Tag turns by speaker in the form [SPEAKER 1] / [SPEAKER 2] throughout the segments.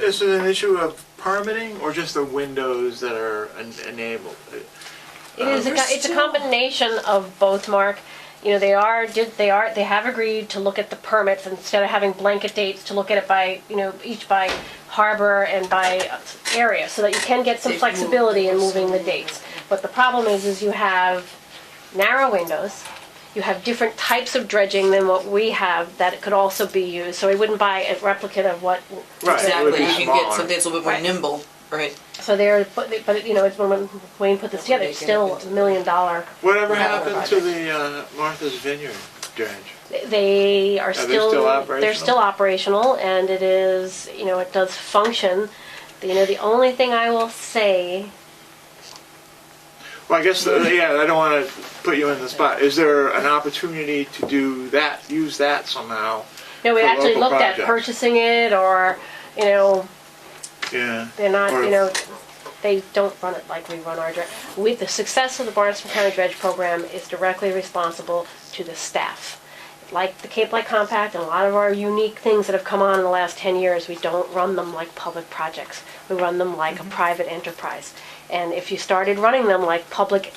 [SPEAKER 1] is it an issue of permitting or just the windows that are en- enabled?
[SPEAKER 2] It is, a
[SPEAKER 3] We're
[SPEAKER 2] co- it's a
[SPEAKER 3] still-
[SPEAKER 2] combination of both, Mark. You know, they are, did, they are, they have agreed to look at the permits instead of having blanket dates to look at it by, you know, each by harbor and by area, so that you can get some
[SPEAKER 3] They've moved
[SPEAKER 2] flexibility in
[SPEAKER 3] also.
[SPEAKER 2] moving the dates. But the problem is, is you have narrow windows, you have different types of dredging than what we have that could also be used, so we wouldn't buy a replicate of what
[SPEAKER 1] Right, it would
[SPEAKER 3] Exactly,
[SPEAKER 1] be
[SPEAKER 3] you can get
[SPEAKER 1] smaller.
[SPEAKER 3] something that's a little bit
[SPEAKER 2] Right.
[SPEAKER 3] more nimble, right?
[SPEAKER 2] So there, but, but you know, it's when Wayne put this together, it's still a million dollar.
[SPEAKER 1] Whatever
[SPEAKER 3] Yeah,
[SPEAKER 1] happened to
[SPEAKER 3] right.
[SPEAKER 1] the uh, Martha's Vineyard dredge?
[SPEAKER 2] They
[SPEAKER 1] they
[SPEAKER 2] are still,
[SPEAKER 1] still
[SPEAKER 2] they're
[SPEAKER 1] operational?
[SPEAKER 2] still operational and it is, you know, it does function. You know, the only thing I will say,
[SPEAKER 1] Well, I guess, uh, yeah, I don't want to put you in the spot. Is there an opportunity to do that, use that somehow?
[SPEAKER 2] no, we
[SPEAKER 1] For
[SPEAKER 2] actually
[SPEAKER 1] local
[SPEAKER 2] looked at
[SPEAKER 1] projects.
[SPEAKER 2] purchasing it or, you know,
[SPEAKER 1] Yeah.
[SPEAKER 2] they're not,
[SPEAKER 1] Or-
[SPEAKER 2] you know, they don't run it like we run our dredge. With the success of the Barnstable County Dredge Program is directly responsible to the staff. Like the Cape Light Compact and a lot of our unique things that have come on in the last ten years, we don't run them like public projects. We run them like a private enterprise. And if you started running them like public,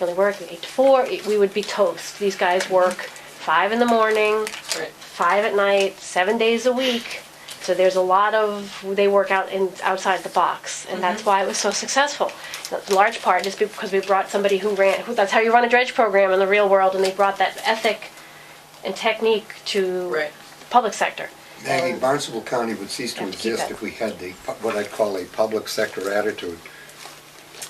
[SPEAKER 2] really work eight to four, it- we would be toast. These guys work five in the morning,
[SPEAKER 3] Right.
[SPEAKER 2] five at night, seven days a week. So there's a lot of they work out in outside the box, and that's why it was so successful. A large part is because we brought somebody who ran. Who, that's how you run a dredge program in the real world, and they brought that ethic and technique to
[SPEAKER 3] Right.
[SPEAKER 2] the public sector.
[SPEAKER 4] Maggie, Barnstable County would cease to
[SPEAKER 2] Have to keep
[SPEAKER 4] exist
[SPEAKER 2] that.
[SPEAKER 4] if we had the, pu- what I'd call a public sector attitude.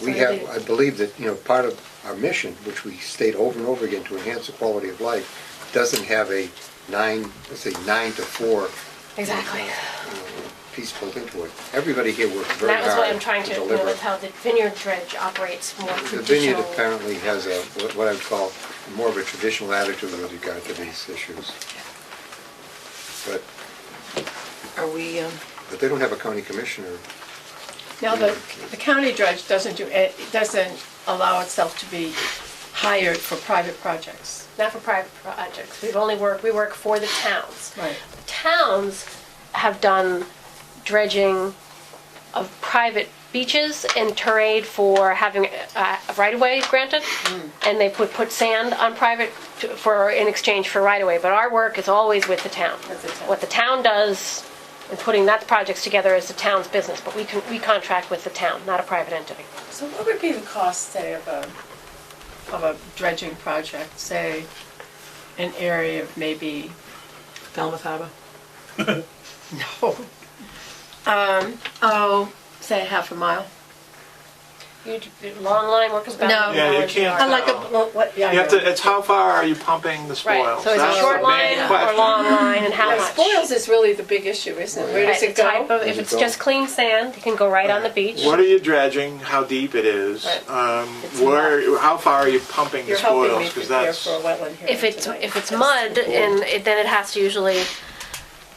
[SPEAKER 4] We
[SPEAKER 2] What do
[SPEAKER 4] have,
[SPEAKER 2] you do?
[SPEAKER 4] I believe that, you know, part of our mission, which we state over and over again to enhance the quality of life, doesn't have a nine, let's say, nine to four
[SPEAKER 2] Exactly.
[SPEAKER 4] piece built into it. Everybody here works very
[SPEAKER 2] That was what I'm
[SPEAKER 4] hard
[SPEAKER 2] trying
[SPEAKER 4] to
[SPEAKER 2] to. You know,
[SPEAKER 4] deliver.
[SPEAKER 2] that's how the vineyard dredge operates more
[SPEAKER 4] The
[SPEAKER 2] traditional.
[SPEAKER 4] vineyard apparently has a, what- what I'd call more of a traditional attitude with regard to these issues. But,
[SPEAKER 3] Are we, um,
[SPEAKER 4] but they don't have a county commissioner.
[SPEAKER 5] Now, the, the county dredge doesn't do, it doesn't allow itself to be hired for private projects.
[SPEAKER 2] not for private projects. We've only worked. We work for the towns.
[SPEAKER 5] Right.
[SPEAKER 2] towns have done dredging of private beaches and terrain for having uh, right of way granted,
[SPEAKER 1] Hmm.
[SPEAKER 2] and they put put sand on private to, for in exchange for right of way. But our work is always with the town.
[SPEAKER 5] With the town.
[SPEAKER 2] What the town does in putting that projects together is the town's business, but we can we contract with the town, not a private entity.
[SPEAKER 5] So what would be the cost, say, of a, of a dredging project, say, an area of maybe,
[SPEAKER 3] Falmouth Harbor?
[SPEAKER 5] no,
[SPEAKER 1] Oh.
[SPEAKER 5] um, oh, say half a mile?
[SPEAKER 2] You long line work is about
[SPEAKER 5] No.
[SPEAKER 1] Yeah, you can't
[SPEAKER 5] Uh, Like a,
[SPEAKER 1] tell.
[SPEAKER 5] well, what, yeah, I
[SPEAKER 1] You have
[SPEAKER 5] know.
[SPEAKER 1] to, it's how far are you pumping the spoils?
[SPEAKER 2] Right, so is
[SPEAKER 1] That's the
[SPEAKER 2] it short
[SPEAKER 1] main
[SPEAKER 2] line or
[SPEAKER 1] question.
[SPEAKER 2] long line and how
[SPEAKER 5] Yeah,
[SPEAKER 2] much?
[SPEAKER 5] Spoils is really the big issue, isn't it? Where
[SPEAKER 2] Right,
[SPEAKER 5] does it
[SPEAKER 2] the type
[SPEAKER 5] go?
[SPEAKER 2] of-
[SPEAKER 4] Does
[SPEAKER 2] if
[SPEAKER 4] it
[SPEAKER 2] it's
[SPEAKER 4] go?
[SPEAKER 2] just clean sand, you can go right on the beach.
[SPEAKER 1] What are you dredging, how deep it is,
[SPEAKER 2] Right.
[SPEAKER 1] um,
[SPEAKER 5] It's
[SPEAKER 1] where, how far are you pumping the
[SPEAKER 5] You're helping
[SPEAKER 1] spoils?
[SPEAKER 5] me
[SPEAKER 1] Because
[SPEAKER 5] prepare
[SPEAKER 1] that's
[SPEAKER 5] for a wetland hearing
[SPEAKER 2] If it's,
[SPEAKER 5] tonight.
[SPEAKER 2] if it's mud, and it, then it has to usually, it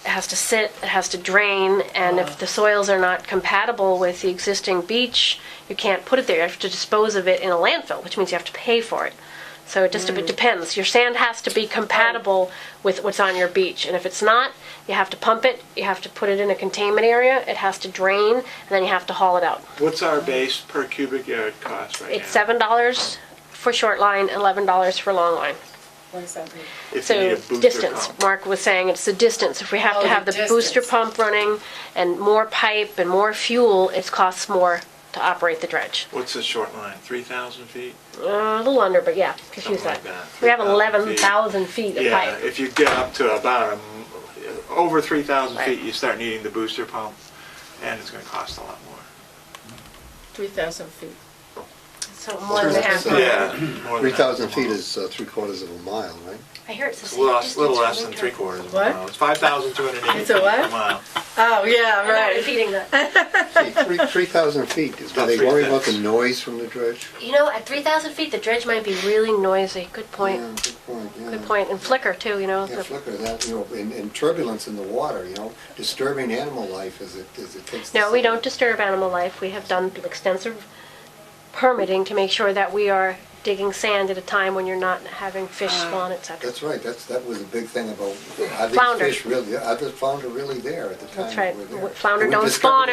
[SPEAKER 2] has to sit, it has to drain, and if the soils are not compatible with the existing beach, you can't put it there. You have to dispose of it in a landfill, which means you have to pay for it. So it just, it depends. Your sand has to be compatible with what's on your beach, and if it's not, you have to pump it, you have to put it in a containment area, it has to drain, and then you have to haul it out.
[SPEAKER 1] What's our base per cubic yard cost right now?
[SPEAKER 2] It's seven dollars for short line, eleven dollars for long line.
[SPEAKER 5] What does that mean?
[SPEAKER 1] If you need
[SPEAKER 2] So
[SPEAKER 1] a booster
[SPEAKER 2] distance,
[SPEAKER 1] pump.
[SPEAKER 2] Mark was saying, it's the distance. If we have
[SPEAKER 5] Oh,
[SPEAKER 2] to
[SPEAKER 5] the
[SPEAKER 2] have the booster
[SPEAKER 5] distance.
[SPEAKER 2] pump running and more pipe and more fuel, it costs more to operate the dredge.
[SPEAKER 1] What's the short line, 3,000 feet?
[SPEAKER 2] Uh, A little under, but yeah, just use
[SPEAKER 1] Something like
[SPEAKER 2] that.
[SPEAKER 1] that,
[SPEAKER 2] We have
[SPEAKER 1] 3,000
[SPEAKER 2] eleven thousand feet of
[SPEAKER 1] Yeah,
[SPEAKER 2] pipe.
[SPEAKER 1] if you get up to about, a m- over 3,000
[SPEAKER 2] Right.
[SPEAKER 1] feet, you start needing the booster pump, and it's going to cost a lot more.
[SPEAKER 5] 3,000 feet.
[SPEAKER 2] So more than half.
[SPEAKER 4] Yeah.
[SPEAKER 1] Yeah. more than
[SPEAKER 4] Three
[SPEAKER 1] that.
[SPEAKER 4] thousand feet is uh, three quarters of a mile, right?
[SPEAKER 2] I hear it's the
[SPEAKER 1] It's a
[SPEAKER 2] same
[SPEAKER 1] little less-
[SPEAKER 2] distance.
[SPEAKER 1] little
[SPEAKER 2] from
[SPEAKER 1] less than
[SPEAKER 2] the
[SPEAKER 1] three
[SPEAKER 2] dredge.
[SPEAKER 1] quarters of a
[SPEAKER 5] What?
[SPEAKER 1] mile. It's 5,280
[SPEAKER 5] It's a
[SPEAKER 1] feet
[SPEAKER 5] what?
[SPEAKER 1] a mile.
[SPEAKER 5] Oh, yeah,
[SPEAKER 2] I'm not
[SPEAKER 5] right.
[SPEAKER 2] repeating that.
[SPEAKER 4] Gee, Three, three thousand feet, do
[SPEAKER 1] About
[SPEAKER 4] they
[SPEAKER 1] three
[SPEAKER 4] worry about
[SPEAKER 1] fifths.
[SPEAKER 4] the noise from the dredge?
[SPEAKER 2] You know, at three thousand feet, the dredge might be really noisy. Good point.
[SPEAKER 4] Yeah, good point, yeah.
[SPEAKER 2] Good point. And flicker too, you know.
[SPEAKER 4] Yeah,
[SPEAKER 2] the-
[SPEAKER 4] flicker, that, you know, and, and turbulence in the water, you know, disturbing animal life as it, as it takes. the
[SPEAKER 2] No, we
[SPEAKER 4] signal.
[SPEAKER 2] don't disturb animal life. We have done extensive permitting to make sure that we are digging sand at a time when you're not having fish spawn, et cetera.
[SPEAKER 4] That's right, that's, that was a big thing about, are
[SPEAKER 2] Flounder.
[SPEAKER 4] these fish really, are the flounder really there at the time
[SPEAKER 2] That's
[SPEAKER 4] that
[SPEAKER 2] right.
[SPEAKER 4] we're there?
[SPEAKER 2] Flounder
[SPEAKER 4] We
[SPEAKER 2] don't
[SPEAKER 4] discovered
[SPEAKER 2] spawn